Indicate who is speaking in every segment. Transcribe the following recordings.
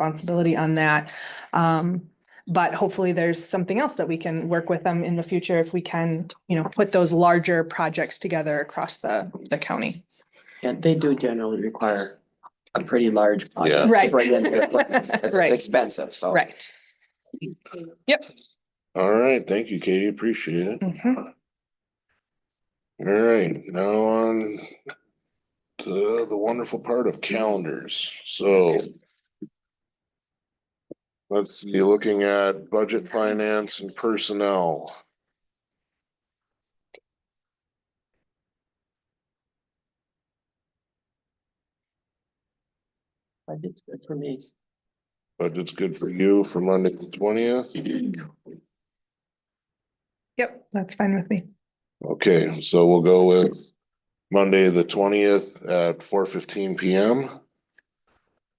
Speaker 1: responsibility on that. Um, but hopefully there's something else that we can work with them in the future if we can, you know, put those larger projects together across the, the county.
Speaker 2: Yeah, they do generally require a pretty large. pot
Speaker 3: Yeah.
Speaker 2: to
Speaker 1: Right.
Speaker 2: bring in their equipment. It's
Speaker 1: Right.
Speaker 2: Expensive, so.
Speaker 1: Right.
Speaker 3: All right, thank you, Katie, appreciate it.
Speaker 1: Mhm.
Speaker 3: All right, now on to the wonderful part of calendars, so. Let's be looking at budget, finance and personnel.
Speaker 2: But it's good for me.
Speaker 3: Budget's good for you for Monday the twentieth.
Speaker 1: Yep, that's fine with me.
Speaker 3: Okay, so we'll go with Monday, the twentieth at four fifteen P M.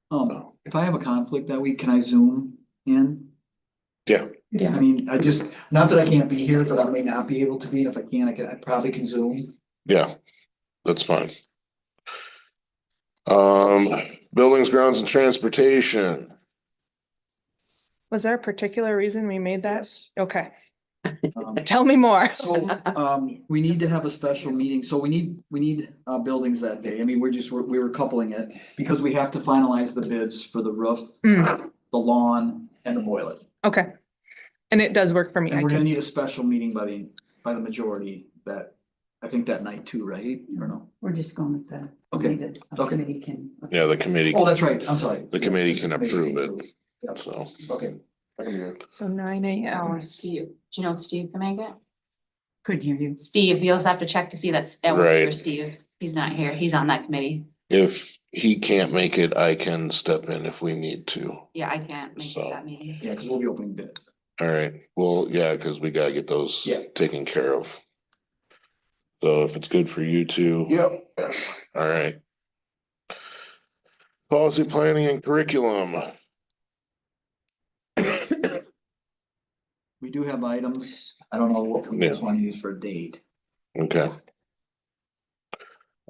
Speaker 3: Oh,
Speaker 4: Um, if I have a conflict that week, can I zoom in?
Speaker 3: Yeah,
Speaker 4: I
Speaker 2: Yeah,
Speaker 4: mean, I just, not that I can't be here, but I may not be able to be, and if I can, I can, I probably can zoom.
Speaker 3: yeah, that's fine. Um, buildings, grounds and transportation.
Speaker 1: Was there a particular reason we made that? Okay,
Speaker 4: Um,
Speaker 1: tell me more.
Speaker 4: So, um, we need to have a special meeting, so we need, we need, uh, buildings that day, I mean, we're just, we're, we were coupling it, because we have to finalize the bids for the roof,
Speaker 1: Mm,
Speaker 4: the lawn, and the boiler.
Speaker 1: okay. And it does work for me.
Speaker 4: And
Speaker 1: I
Speaker 4: we're gonna
Speaker 1: can-
Speaker 4: need a special meeting by the, by the majority that, I think that night too, right, or no?
Speaker 5: We're just going with the.
Speaker 4: Okay,
Speaker 5: the
Speaker 4: okay.
Speaker 5: Committee can.
Speaker 3: Yeah, the committee,
Speaker 4: oh, that's right, I'm sorry.
Speaker 3: The committee can approve it.
Speaker 4: Yep,
Speaker 3: so.
Speaker 4: Okay.
Speaker 1: So nine
Speaker 6: Oh,
Speaker 1: AM.
Speaker 6: Steve, do you know if Steve can make it?
Speaker 5: Couldn't hear you.
Speaker 6: Steve, you also have to check to see that's, that works for
Speaker 3: Right.
Speaker 6: Steve. He's not here. He's on that committee.
Speaker 3: If he can't make it, I can step in if we need to.
Speaker 6: Yeah, I can't make
Speaker 3: So-
Speaker 6: that meeting.
Speaker 4: Yeah, because we'll be opening bid.
Speaker 3: All right, well, yeah, cause we gotta get those
Speaker 4: Yeah.
Speaker 3: taken care of. So if it's good for you two.
Speaker 4: Yep.
Speaker 3: All right. Policy planning and curriculum.
Speaker 4: We do have items. I don't know what we
Speaker 3: Yeah.
Speaker 4: just want to use for a date.
Speaker 3: Okay.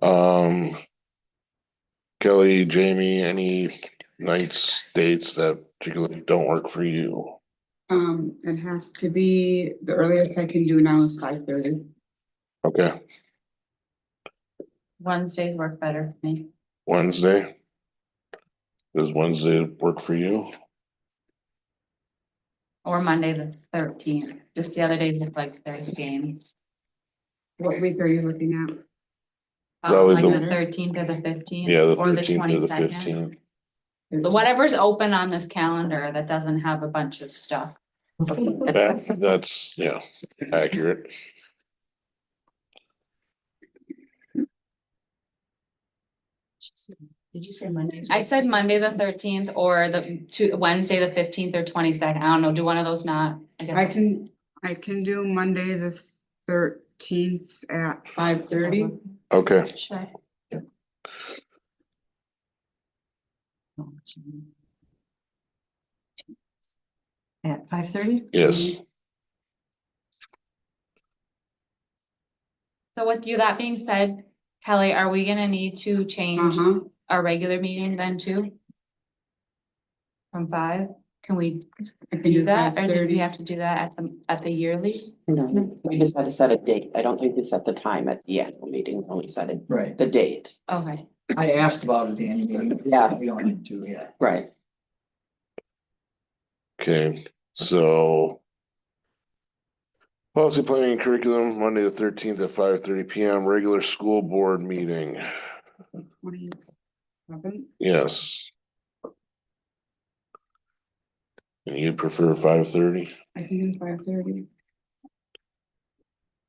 Speaker 3: Um. Kelly, Jamie, any nights, dates that particularly don't work for you?
Speaker 7: Um, it has to be, the earliest I can do now is five thirty.
Speaker 3: Okay,
Speaker 6: Wednesdays work better for me.
Speaker 3: Wednesday? Does Wednesday work for you?
Speaker 6: Or Monday the thirteenth. Just the other days, it's like there's games.
Speaker 7: What week are you looking at?
Speaker 6: Um,
Speaker 3: Probably
Speaker 6: Like
Speaker 3: the-
Speaker 6: the thirteenth or the fifteenth.
Speaker 3: Yeah, the
Speaker 6: or
Speaker 3: thirteenth to the
Speaker 6: 22nd.
Speaker 3: fifteenth.
Speaker 6: Whatever's open on this calendar that doesn't have a bunch of stuff.
Speaker 3: That, that's, yeah, accurate.
Speaker 5: Did you say Monday?
Speaker 6: I said Monday the thirteenth or the two, Wednesday the fifteenth or twenty-second. I don't know. Do one of those not? guess
Speaker 7: I can, I can do Monday the thirteenth at five thirty.
Speaker 3: Okay,
Speaker 6: Sure.
Speaker 5: At five thirty?
Speaker 3: yes,
Speaker 6: So with you, that being said, Kelly, are we gonna need to change
Speaker 7: Uh-huh.
Speaker 6: our regular meeting then too? From five, can we
Speaker 7: I can
Speaker 6: do that, or do we
Speaker 7: 5:30.
Speaker 6: have to do that at the, at the yearly?
Speaker 8: No, we just had to set a date. I don't think we set the time at the annual meeting, only set it,
Speaker 4: Right.
Speaker 8: the date.
Speaker 6: Okay,
Speaker 4: I asked about it, Danny. but
Speaker 8: Yeah.
Speaker 4: We don't need to, yeah.
Speaker 8: Right.
Speaker 3: Okay, so. Policy planning and curriculum, Monday the thirteenth at five thirty P M, regular school board meeting,
Speaker 7: What are you- Seven?
Speaker 3: yes. And you prefer five thirty?
Speaker 7: I can do five thirty.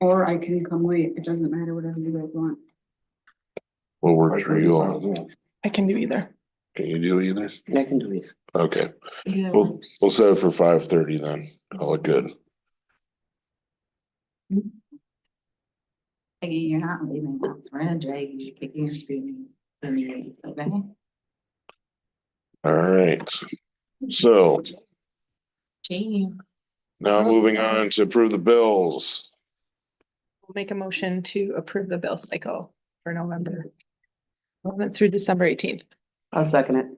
Speaker 7: Or I can come late, it doesn't matter, whatever you guys want.
Speaker 3: What works for you all?
Speaker 1: I can do either.
Speaker 3: Can you do either?
Speaker 8: I can do it.
Speaker 3: Okay,
Speaker 6: either one.
Speaker 3: we'll, we'll set it for five thirty then, call it good.
Speaker 6: Peggy, you're not leaving us, we're gonna drag you, kicking and screaming. Okay,
Speaker 3: All right, so
Speaker 6: Jamie,
Speaker 3: now moving on to approve the bills.
Speaker 1: We'll Make a motion to approve the bill cycle for November eleventh through December eighteenth.
Speaker 8: I'll second it.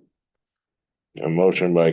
Speaker 3: A motion by